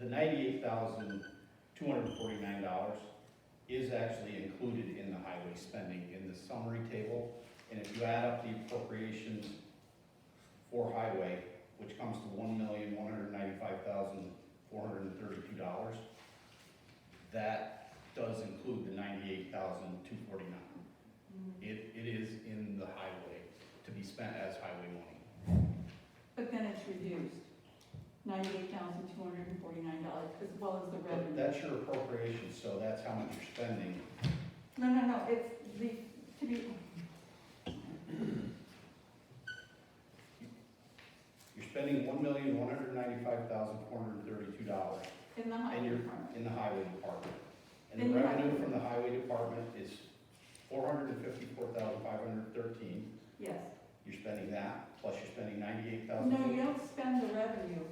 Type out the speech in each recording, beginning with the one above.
the ninety-eight thousand, two hundred and forty-nine dollars is actually included in the highway spending in the summary table. And if you add up the appropriations for highway, which comes to one million, one hundred and ninety-five thousand, four hundred and thirty-two dollars, that does include the ninety-eight thousand, two forty-nine. It, it is in the highway, to be spent as highway money. But then it's reduced, ninety-eight thousand two hundred and forty-nine dollars, as well as the But revenue. that's your appropriation, so that's how much you're spending. No, no, no, it's the, to be, You're spending one million, one hundred ninety-five thousand, four hundred and thirty-two dollars in the highway And you're- department. in the highway department. And And the you have- revenue from the highway department is four hundred and fifty-four thousand, five hundred and thirteen. Yes. You're spending that, plus you're spending ninety-eight thousand. No, you don't spend the revenue.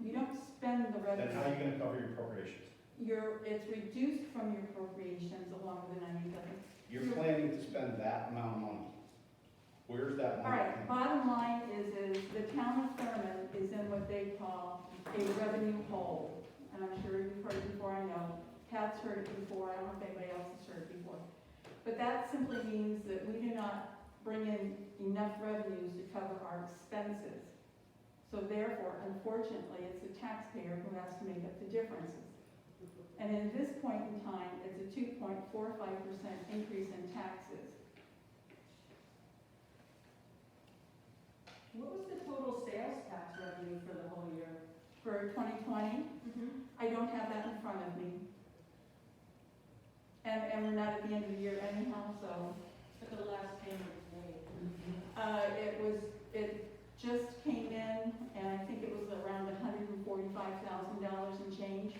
You don't spend the Then how are you revenue. gonna cover your appropriations? You're, it's reduced from your appropriations along with the ninety thousand. You're planning to spend that amount of money. Where's that All money? right, bottom line is, is the town of Thurmond is in what they call a revenue hole. And I'm sure you've heard it before, I know, Pat's heard it before, I don't know if anybody else has heard it before. But that simply means that we do not bring in enough revenues to cover our expenses. So therefore, unfortunately, it's the taxpayer who has to make up the differences. And at this point in time, it's a two point four five percent increase in taxes. What was the total sales tax revenue for the whole year? For twenty twenty, Mm-hmm. I don't have that in front of me. And, and we're not at the end of the year anyhow, so, For the last payment made. Mm-hmm. uh, it was, it just came in, and I think it was around hundred and forty-five thousand dollars and change.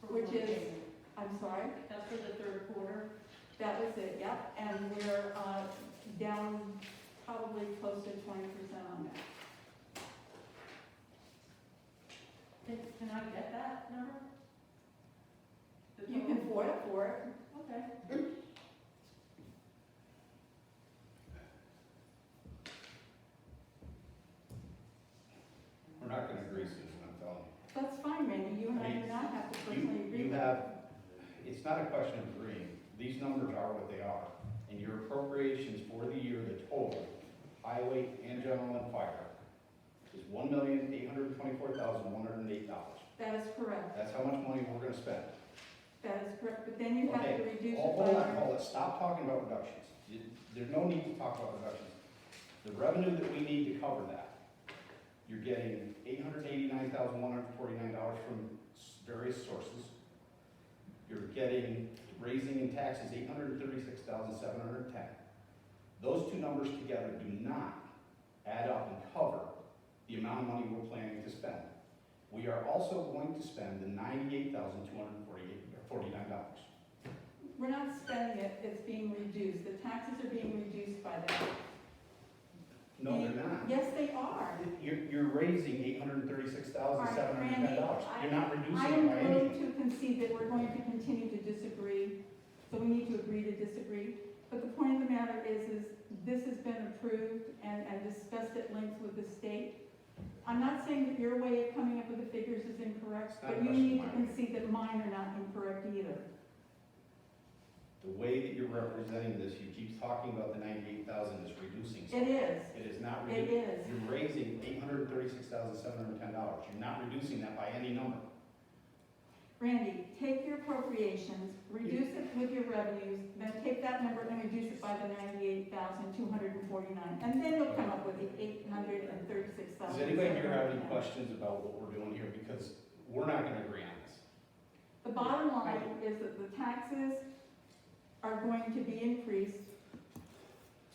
For Which one is- payment. I'm sorry, That's for the third quarter. that was it, yep, and we're, uh, down probably close to twenty percent on that. Can, can I get that number? The You can total? afford it for it, Okay. We're not gonna agree, Susan, I'm telling you. that's fine, Randy, you and I do not have to personally agree. You with have, it's not a question of agreeing, these numbers are what they are. And your appropriations for the year, the total, highway and general and fire, is one million, eight hundred and twenty-four thousand, one hundred and eight dollars. That is correct, That's how much money we're gonna spend. that is correct, but then you have to Okay, Oh, reduce it by. Hold hold on, hold on, stop talking about reductions. You- There's no need to talk about reductions. The revenue that we need to cover that, you're getting eight hundred eighty-nine thousand, one hundred forty-nine dollars from s- various sources. You're getting raising in taxes, eight hundred thirty-six thousand, seven hundred ten. Those two numbers together do not add up and cover the amount of money we're planning to spend. We are also going to spend the ninety-eight thousand, two hundred forty-eight, forty-nine dollars. We're not spending it, it's being reduced, the taxes are being reduced by that. No, they're not. Yes, they are. You're, you're raising eight hundred and thirty-six thousand, seven hundred and ten dollars. All right, You're Randy, not I reducing am it by willing anything. to concede that we're going to continue to disagree, so we need to agree to disagree. But the point of the matter is, is this has been approved and, and discussed at length with the state. I'm not saying that your way of coming up with the figures is incorrect, It's not a but question of you need to mine. concede that mine are not incorrect either. The way that you're representing this, you keep talking about the ninety-eight thousand is reducing It something. is, It is not it reducing. is. You're raising eight hundred and thirty-six thousand, seven hundred and ten dollars. You're not reducing that by any number. Randy, take your appropriations, reduce it with your revenues, then take that number and reduce it by the ninety-eight thousand, two hundred and forty-nine, and then you'll come up with the eight hundred and thirty-six thousand. Does anybody here have any questions about what we're doing here? Because we're not gonna agree on this. The bottom line is that the taxes are going to be increased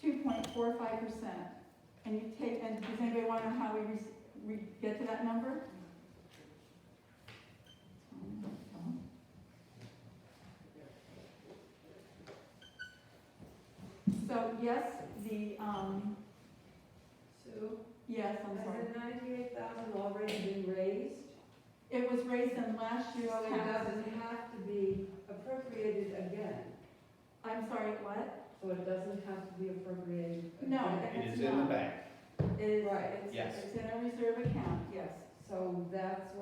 two point four five percent. And you take, and does anybody want to know how we, re- we get to that number? So yes, the, um, Sue, yes, has I'm sorry. the ninety-eight thousand already been raised? It was raised in last So year's it taxes. doesn't have to be appropriated again, I'm sorry, what? so it doesn't have to be appropriated again? No, and It it's is in the not. bank. It is, Right. it's- Yes. it's in a reserve account, yes. So that's